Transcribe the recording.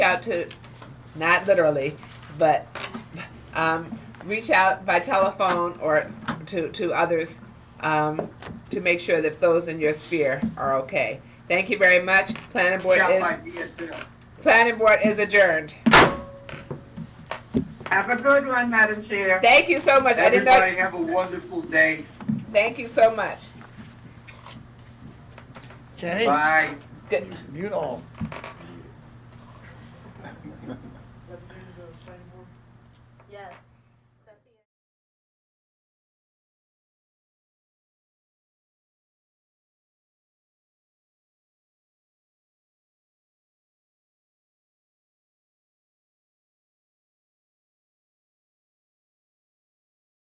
out to, not literally, but um, reach out by telephone or to, to others um, to make sure that those in your sphere are okay. Thank you very much. Planning board Shall is, I be a sale? planning board is adjourned. Have a good one, Madam Chair. Thank you so much. I didn't know, Everybody have a wonderful day. thank you so much. Kenny, Bye. Good. mute all. Yes.